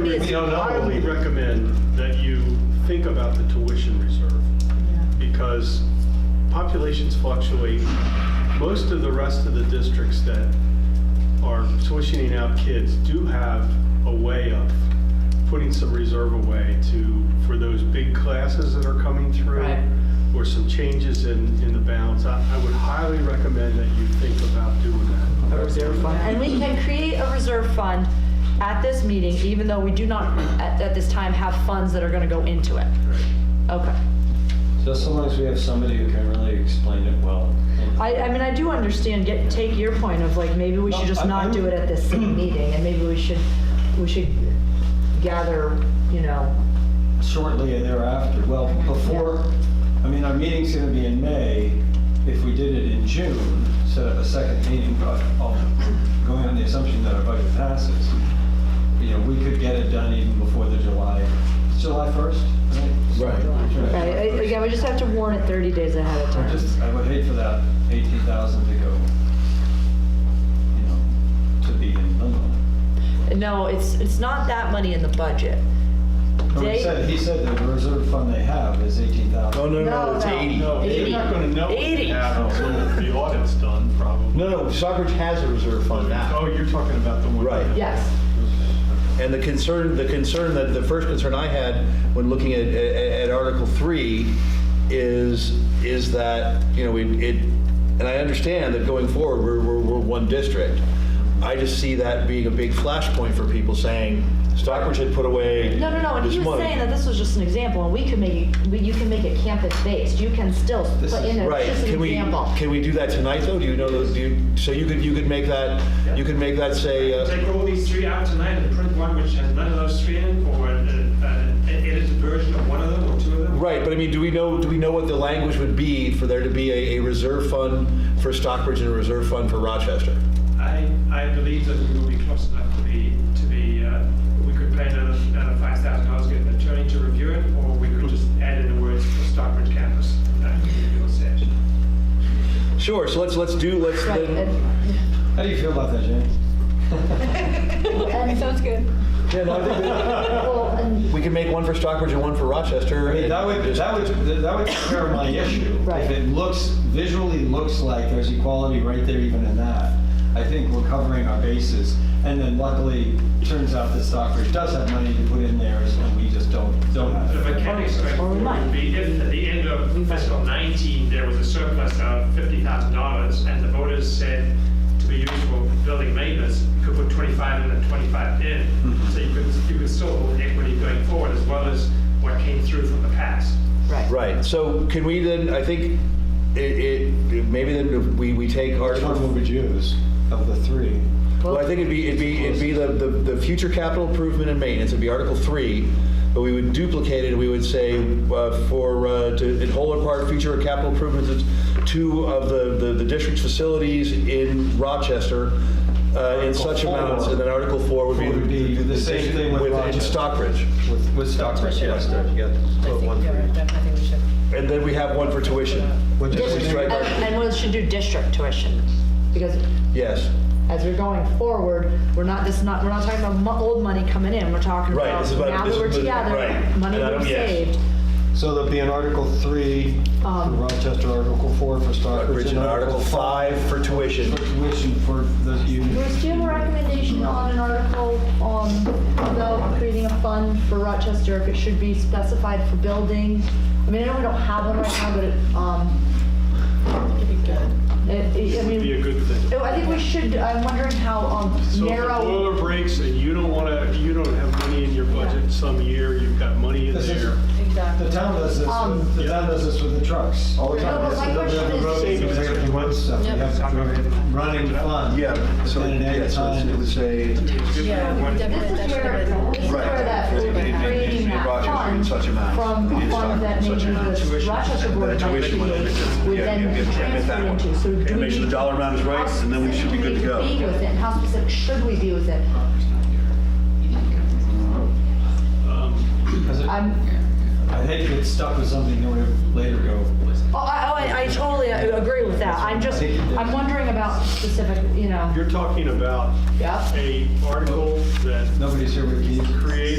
re- We don't know. highly recommend that you think about the tuition reserve because populations fluctuate. Most of the rest of the districts that are tuitioning out kids do have a way of putting some reserve away to, for those big classes that are coming through. Right. Or some changes in, in the balance. I, I would highly recommend that you think about doing that. A reserve fund? And we can create a reserve fund at this meeting, even though we do not, at, at this time, have funds that are gonna go into it. Okay. Just so long as we have somebody who can really explain it well. I, I mean, I do understand, get, take your point of like, maybe we should just No, I- not I'm- do it at this same meeting, and maybe we should, we should gather, you know, Shortly thereafter, well, before, I mean, our meeting's gonna be in May. If we did it in June, set up a second meeting, but I'll- going on the assumption that our budget passes, you know, we could get it done even before the July, it's July 1st, right? Right. right, I- again, we just have to warn it thirty days ahead of I time. just, I would hate for that 18,000 to go, you know, to be in limbo. No, it's, it's not that money in the budget. No, They- He said, he said the reserve fund they have is eighteen No, thousand. no, No, no, it's no. 80. No, you're not gonna know what Eighty. you have until the audit's done, probably. No, no, Stockbridge has a reserve fund now. Oh, you're talking about the one. Right. Yes, And the concern, the concern that, the first concern I had when looking at, at at Article 3 is, is that, you know, it, it- and I understand that going forward, we're, we're, we're one district. I just see that being a big flashpoint for people saying Stockbridge had put away no, no, no, and he this was money." saying that this was just an example, and we could make, it- we- you can make it campus-based, you can still This put in is- there, Right, it's just can an we, example. can we do that tonight, though? Do you know, those- do you, so you could, you could make that, you could make that say, uh, Take all these three out tonight and print one which has none of those three in, or an an edited version of one of them or two of them? Right, but I mean, do we know, do we know what the language would be for there to be a, a reserve fund for Stockbridge and a reserve fund for Rochester? I, I believe that we will be close enough to be, to be, uh, we could pay another, another five thousand dollars, get an attorney to review it, or we could just add in the words for Stockbridge campus. Uh, That would be all set. Sure, so let's, let's do, let's, Right, then- and- How do you feel about that, James? and- Sounds good. yeah, no, I think that- well, and- we can make one for Stockbridge and one for Rochester. I mean, that would, that would, that would take care of my issue. Right. If it looks, visually looks like there's equality right there even in that, I think we're covering our bases. And then luckily, turns out that Stockbridge does have money to put in theirs, and we just don't, don't The have it. mechanics Or we straightforward might. would be if at the end of fiscal 19, there was a surplus of $50,000 and the voters said to be used for building maintenance, you could put 25 in and 25 in. So you could, you could still hold equity going forward as well as what came through from the past. Right. Right, so can we then, I think, it, it, maybe then we, we take Which one Article, would we choose of the three? well, I think it'd be, it'd be, it'd be the, the, the future capital improvement and maintenance, it'd be Article Three, but we would duplicate it, and we would say, uh, for, uh, to, in whole or part, future capital improvements, it's two of the, the, the district's facilities in Rochester, uh, in such Article four. amounts, and then Article Four would be. Would be the same district thing with in Rochester. Stockbridge, With- With Stockbridge, yes, there you I go. think you're right, Jeff. I think we should. and then we have one for tuition. Which is- Just strike And, Article- and we should do district tuition, because Yes, as we're going forward, we're not, this is not, we're not talking about mo- old money coming in, we're talking Right, about, this is about- now this that we're is the- together, right. money And I we've don't- yes. saved. So there'll be an Article 3 for Um, Rochester, Article 4 for Stockbridge, Stockbridge and Article Five for tuition. For tuition for the union. Bruce, do you have a recommendation on an article, um, about creating a fund for Rochester, if it should be specified for building? I mean, I know we don't have one right now, but it, um, It'd be good. it, It'd it- I Be a mean, good thing. Um, I think we should, I'm wondering how, um, So if the narrow. boiler breaks and you don't want to, you don't have money in your budget some year, you've got money in This is- there. The Exactly. town does this, Um, with- the town does this with the trucks all the No, time. but It's my the question WM is- roads, Savings. We have to run stuff, we Yeah. have to running fund. Yeah, But so, then it yeah, adds so it's- time. it would say. Um, This Yeah, we definitely, is where, this is definitely. Right. where that, Right. creating that Rochester in fund such amount, from and it's funds that such maybe amount. the Rochester And Board then of tuition would- Education would yeah, yeah, then yeah, yeah, transfer that one. into. So Okay, do we make sure the need- dollar amount is right, and then we should be good to How specific do go. we need be with it, and how specific should we be with it? Um, 'Cause it- I'm, I hate to get stuck with something that we later go. oh, I, oh, I I totally agree with that, I'm just, I'm wondering about specific, you know, You're talking about yeah. a article that um, Nobody's here with me. creates